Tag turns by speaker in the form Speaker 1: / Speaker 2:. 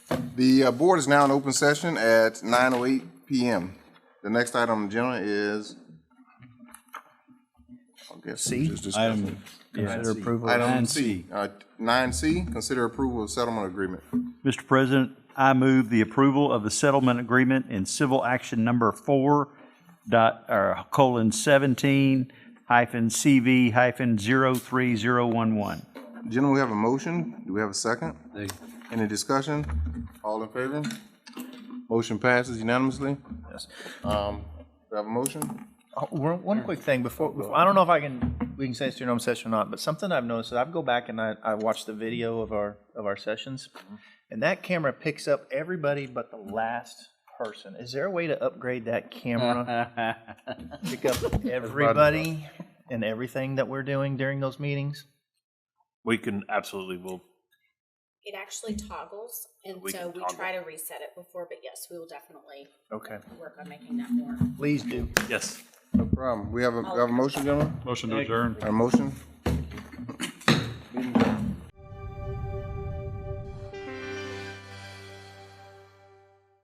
Speaker 1: The uh, board is now in open session at 9:08 PM. The next item on the agenda is, I guess, we just discussed it.
Speaker 2: Item, consider approval of
Speaker 1: Item
Speaker 2: nine
Speaker 1: C, uh, 9C, consider approval of settlement agreement.
Speaker 2: Mr. President, I move the approval of the settlement agreement in civil action number four dot, or colon seventeen hyphen CV hyphen zero three zero one one.
Speaker 1: Gentlemen, we have a motion. Do we have a second? Any discussion? All in favor? Motion passes unanimously.
Speaker 3: Yes.
Speaker 1: Um, Do I have a motion?
Speaker 3: Oh, One one quick thing before, before- I don't know if I can, we can say it's during open session or not, but something I've noticed is I go back and I, I watch the video of our, of our sessions, and that camera picks up everybody but the last person. Is there a way to upgrade that camera? Pick up everybody and everything that we're doing during those meetings?
Speaker 4: We can absolutely, we'll,
Speaker 5: It actually toggles, and
Speaker 4: We
Speaker 5: so
Speaker 4: can
Speaker 5: we
Speaker 4: toggle.
Speaker 5: try to reset it before, but yes, we will definitely
Speaker 3: Okay,
Speaker 5: work on making that more.
Speaker 3: please do.
Speaker 4: yes.
Speaker 1: No problem. We have a, we have a motion, gentlemen?
Speaker 6: Motion to adjourn.
Speaker 1: A motion?